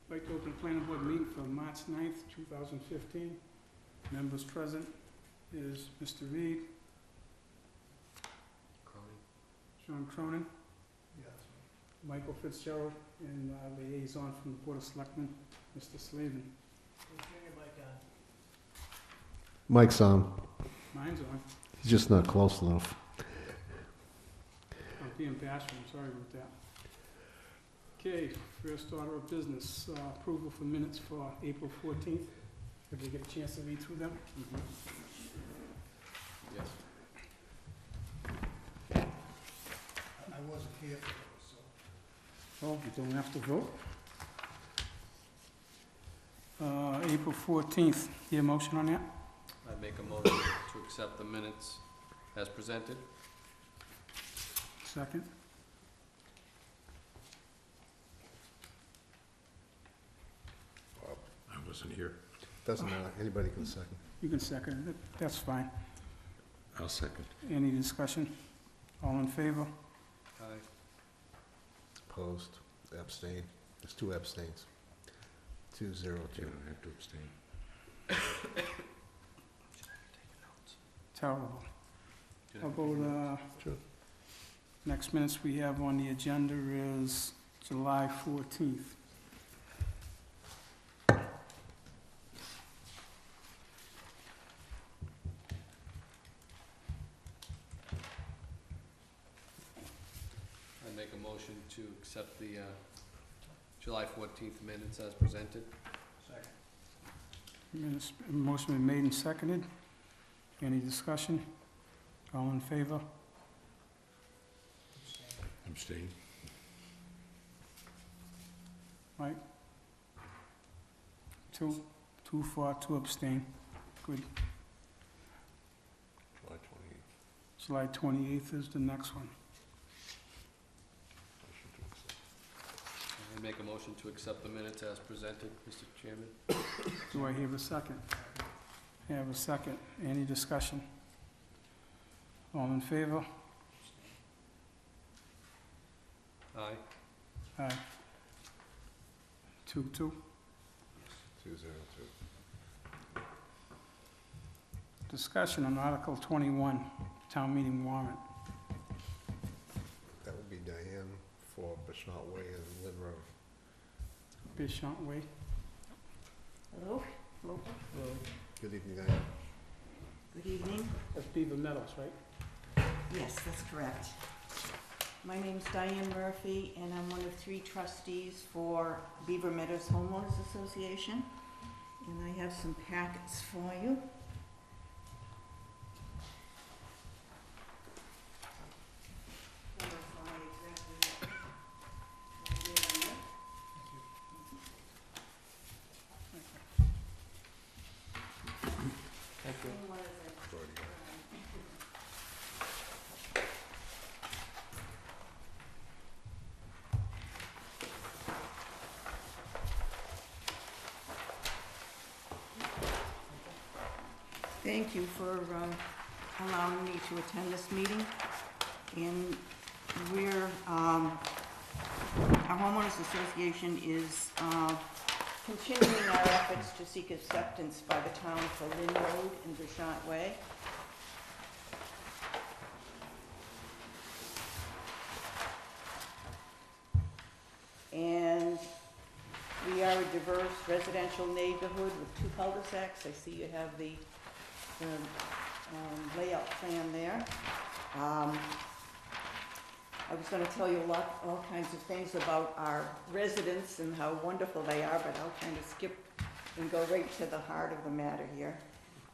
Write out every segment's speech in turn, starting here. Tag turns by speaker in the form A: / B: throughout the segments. A: I'd like to open planning board meeting for March 9th, two thousand fifteen. Members present is Mr. Reed, Sean Cronin, Michael Fitzgerald, and uh, liaison from the Board of Selectmen, Mr. Slavin.
B: Mike's on.
A: Mine's on,
B: He's just not close enough.
A: I'm being bashful, I'm sorry about that. Okay, first order of business, uh, approval for minutes for April fourteenth. Did you get a chance to read through them?
C: Yes.
D: I wasn't here for those, so.
A: Oh, you don't have to vote? Uh, April fourteenth, your motion on that?
C: I make a motion to accept the minutes as presented.
A: Second.
E: I wasn't here.
B: Doesn't matter. Anybody can second.
A: You can second it, that's fine.
E: I'll second.
A: Any discussion? All in favor?
C: Aye.
B: Opposed. Abstain. There's two abstains. Two zero
E: You
B: two.
E: don't have to abstain.
A: Terrible.
C: Did I
A: How about, uh,
B: Sure.
A: next minutes we have on the agenda is July fourteenth.
C: I make a motion to accept the uh, July fourteenth minutes as presented.
D: Second.
A: Motion been made and seconded. Any discussion? All in favor?
E: Abstain?
A: Two, two for, two abstain. Good.
E: July twenty-eighth.
A: July twenty-eighth is the next one.
C: I make a motion to accept the minutes as presented, Mr. Chairman.
A: Do I have a second? I have a second. Any discussion? All in favor?
C: Aye.
A: Aye. Two, two.
B: Two zero two.
A: Discussion on Article twenty-one, town meeting warrant.
B: That would be Diane for Bishnot Way and Lynn Road.
A: Bishop Way.
F: Hello, hello,
B: Good evening, Diane.
F: good evening.
A: That's Beaver Meadows, right?
F: Yes, that's correct. My name's Diane Murphy, and I'm one of three trustees for Beaver Meadows Homeowners Association. And I have some packets for you.
C: Thank
F: Thank you for um, allowing me to attend this meeting. And we're, um, our homeowners association is uh, continuing our efforts to seek acceptance by the town for Lynn Road and Bouchant Way. And we are a diverse residential neighborhood with two cul-de-sacs. I see you have the the um, layout plan there. Um, I was gonna tell you a lot, all kinds of things about our residents and how wonderful they are, but I'll kind of skip and go right to the heart of the matter here.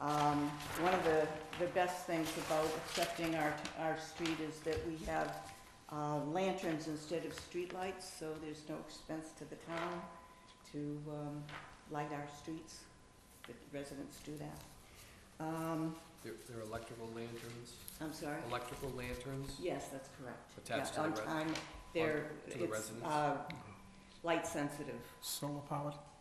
F: Um, One of the, the best things about accepting our, our street is that we have uh, lanterns instead of streetlights, so there's no expense to the town to um, light our streets. The residents do that. Um,
C: There there are electrical lanterns,
F: I'm sorry?
C: electrical lanterns?
F: Yes, that's correct.
C: Attached
F: Yeah,
C: to the
F: On time, they're,
C: to the
F: it's,
C: residents?
F: uh, light sensitive.
A: Solar powered.